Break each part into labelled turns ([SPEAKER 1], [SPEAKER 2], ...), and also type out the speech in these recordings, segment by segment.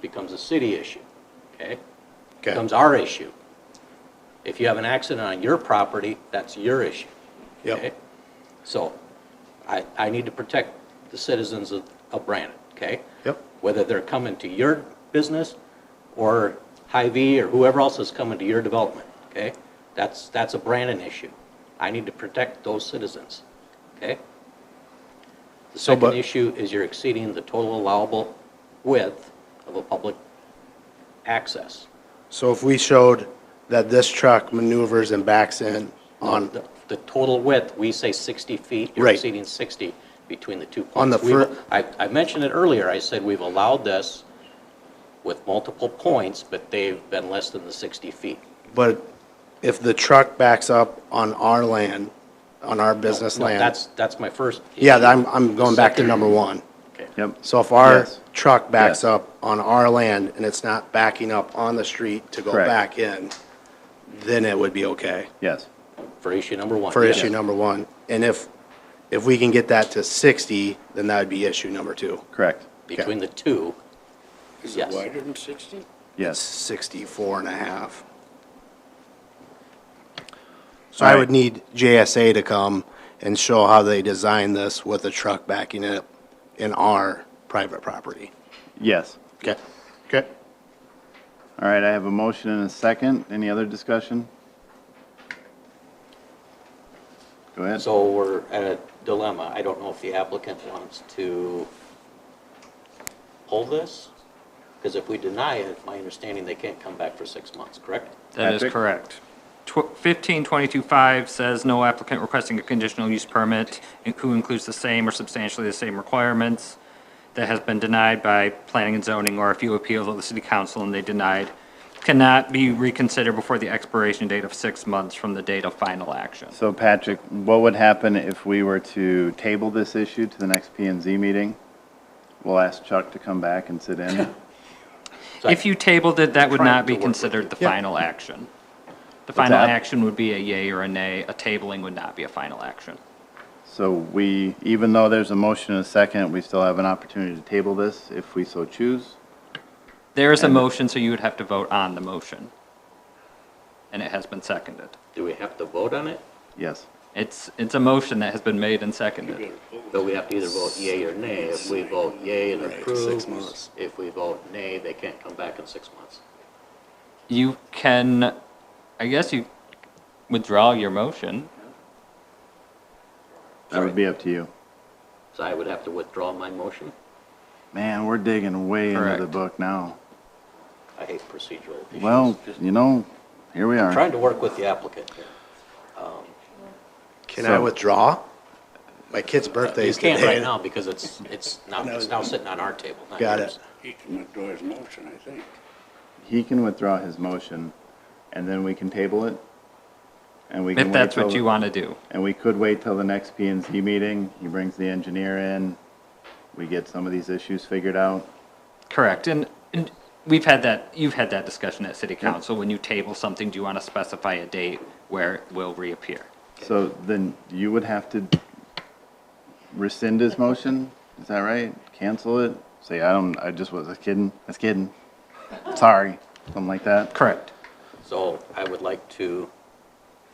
[SPEAKER 1] becomes a city issue, okay?
[SPEAKER 2] Okay,
[SPEAKER 1] Becomes our issue. If you have an accident on your property, that's your issue.
[SPEAKER 2] Yep.
[SPEAKER 1] okay? So I, I need to protect the citizens of, of Brandon, okay?
[SPEAKER 2] Yep.
[SPEAKER 1] Whether they're coming to your business or Hy-Vee or whoever else is coming to your development, okay? That's, that's a Brandon issue. I need to protect those citizens, okay? The
[SPEAKER 2] So, but-
[SPEAKER 1] second issue is you're exceeding the total allowable width of a public access.
[SPEAKER 2] so if we showed that this truck maneuvers and backs in on,
[SPEAKER 1] The the total width, we say 60 feet, you're
[SPEAKER 2] Right.
[SPEAKER 1] exceeding 60 between the two points.
[SPEAKER 2] On the
[SPEAKER 1] We've-
[SPEAKER 2] fir-
[SPEAKER 1] I, I mentioned it earlier, I said we've allowed this with multiple points, but they've been less than the 60 feet.
[SPEAKER 2] but if the truck backs up on our land, on our business
[SPEAKER 1] No,
[SPEAKER 2] land.
[SPEAKER 1] That's, that's my first.
[SPEAKER 2] Yeah,
[SPEAKER 1] issue.
[SPEAKER 2] I'm, I'm going back to number one.
[SPEAKER 1] Okay.
[SPEAKER 3] Yep.
[SPEAKER 2] So if our
[SPEAKER 3] Yes.
[SPEAKER 2] truck backs
[SPEAKER 3] Yes.
[SPEAKER 2] up on our land and it's not backing up on the street to go
[SPEAKER 3] Correct.
[SPEAKER 2] back in, then it would be okay
[SPEAKER 3] Yes.
[SPEAKER 1] For issue number one.
[SPEAKER 2] for
[SPEAKER 1] yes.
[SPEAKER 2] issue number one. And if, if we can get that to 60, then that would be issue number two.
[SPEAKER 3] Correct.
[SPEAKER 1] Between the two, yes.
[SPEAKER 4] than 60?
[SPEAKER 3] Yes.
[SPEAKER 2] 64 and a half. So I would need JSA to come and show how they designed this with a truck backing it in our private property.
[SPEAKER 3] Yes.
[SPEAKER 2] Okay. Okay.
[SPEAKER 3] All right, I have a motion and a second. Any other discussion? Go ahead.
[SPEAKER 1] So we're at a dilemma. I don't know if the applicant wants to hold this, because if we deny it, my understanding, they can't come back for six months, correct?
[SPEAKER 5] That is
[SPEAKER 3] Patrick?
[SPEAKER 5] correct. Tw- 15225 says no applicant requesting a conditional use permit in- who includes the same or substantially the same requirements that has been denied by planning and zoning or if you appeal to the city council and they denied cannot be reconsidered before the expiration date of six months from the date of final action.
[SPEAKER 3] So Patrick, what would happen if we were to table this issue to the next P and Z meeting? We'll ask Chuck to come back and sit in.
[SPEAKER 1] So I-
[SPEAKER 5] If you tabled it, that would
[SPEAKER 1] Trying
[SPEAKER 5] not
[SPEAKER 1] to
[SPEAKER 5] be
[SPEAKER 1] work with
[SPEAKER 5] considered the final action. The
[SPEAKER 3] What's
[SPEAKER 5] final
[SPEAKER 3] that?
[SPEAKER 5] action would be a yay or a nay. A tabling would not be a final action.
[SPEAKER 3] So we, even though there's a motion and a second, we still have an opportunity to table this if we so choose.
[SPEAKER 5] There is a motion, so you would have to vote on the motion. And it has been seconded.
[SPEAKER 1] Do we have to vote on it?
[SPEAKER 3] Yes.
[SPEAKER 5] It's, it's a motion that has been made and seconded.
[SPEAKER 1] Though we have to either vote yea or nay. If we vote yea and approve, if we vote nay, they can't come back in six months.
[SPEAKER 5] You can, I guess you withdraw your motion.
[SPEAKER 3] That would be up to you.
[SPEAKER 1] So I would have to withdraw my motion.
[SPEAKER 3] Man, we're digging way into the
[SPEAKER 5] Correct.
[SPEAKER 3] book now.
[SPEAKER 1] I hate procedural issues.
[SPEAKER 3] Well,
[SPEAKER 1] Just
[SPEAKER 3] you know, here we are.
[SPEAKER 1] Trying to work with the applicant here.
[SPEAKER 2] Can I
[SPEAKER 3] So-
[SPEAKER 2] withdraw? My kid's birthday
[SPEAKER 1] You
[SPEAKER 2] is
[SPEAKER 1] can't right
[SPEAKER 2] today.
[SPEAKER 1] now because it's, it's now, it's now sitting on our table, not
[SPEAKER 2] Got
[SPEAKER 1] yours.
[SPEAKER 2] it.
[SPEAKER 4] He can withdraw his motion, I think.
[SPEAKER 3] He can withdraw his motion, and then we can table it. And we can
[SPEAKER 5] If
[SPEAKER 3] wait
[SPEAKER 5] that's what
[SPEAKER 3] till-
[SPEAKER 5] you want to do.
[SPEAKER 3] And we could wait till the next P and Z meeting. He brings the engineer in. We get some of these issues figured out.
[SPEAKER 5] Correct. And, and we've had that, you've had that discussion at city council. When you table something, do you want to specify a date where it will reappear?
[SPEAKER 3] So then you would have to rescind his motion? Is that right? Cancel it? Say, I don't, I just was I was kidding. I was kidding. Sorry. Something like that.
[SPEAKER 5] Correct.
[SPEAKER 1] So I would like to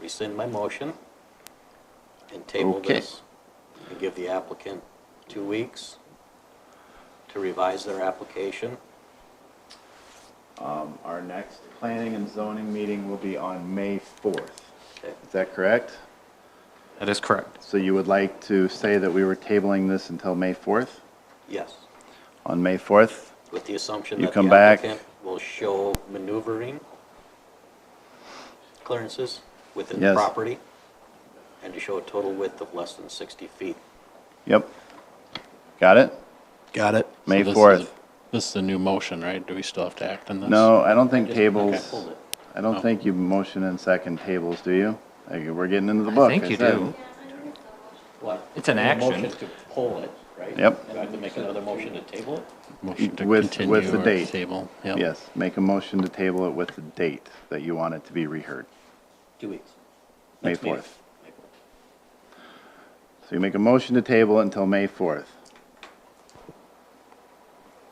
[SPEAKER 1] rescind my motion and table
[SPEAKER 3] Okay.
[SPEAKER 1] this and give the applicant two weeks to revise their application.
[SPEAKER 3] Our next planning and zoning meeting will be on May 4th.
[SPEAKER 1] Okay.
[SPEAKER 3] Is that correct?
[SPEAKER 5] That is correct.
[SPEAKER 3] So you would like to say that we were tabling this until May 4th?
[SPEAKER 1] Yes,
[SPEAKER 3] On May 4th?
[SPEAKER 1] with the assumption
[SPEAKER 3] You
[SPEAKER 1] that
[SPEAKER 3] come
[SPEAKER 1] the
[SPEAKER 3] back.
[SPEAKER 1] applicant will show maneuvering clearances within the
[SPEAKER 3] Yes.
[SPEAKER 1] property and to show a total width of less than 60 feet.
[SPEAKER 3] Yep. Got it?
[SPEAKER 2] Got it.
[SPEAKER 3] May
[SPEAKER 6] So this is
[SPEAKER 3] 4th.
[SPEAKER 6] a- This is a new motion, right? Do we still have to act on this?
[SPEAKER 3] No, I don't think
[SPEAKER 1] Okay,
[SPEAKER 3] tables,
[SPEAKER 1] hold it.
[SPEAKER 3] I don't think you motion and second tables, do you? Like, we're getting into the
[SPEAKER 5] I
[SPEAKER 3] book.
[SPEAKER 5] think you
[SPEAKER 3] said.
[SPEAKER 5] do.
[SPEAKER 1] What?
[SPEAKER 5] It's an
[SPEAKER 1] A
[SPEAKER 5] action.
[SPEAKER 1] Motion to pull it, right?
[SPEAKER 3] Yep.
[SPEAKER 1] Do I have to make another motion to table it?
[SPEAKER 6] Motion to
[SPEAKER 3] With-
[SPEAKER 6] continue
[SPEAKER 3] with the
[SPEAKER 6] or
[SPEAKER 3] date.
[SPEAKER 6] Table, yep.
[SPEAKER 3] Yes, make a motion to table it with the date that you want it to be reheard.
[SPEAKER 1] Two weeks.
[SPEAKER 3] May
[SPEAKER 1] Next meeting.
[SPEAKER 3] 4th. So you make a motion to table it until May 4th.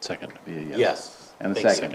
[SPEAKER 6] Second.
[SPEAKER 3] Be a
[SPEAKER 1] Yes.
[SPEAKER 3] And a
[SPEAKER 6] Thanks,
[SPEAKER 3] second.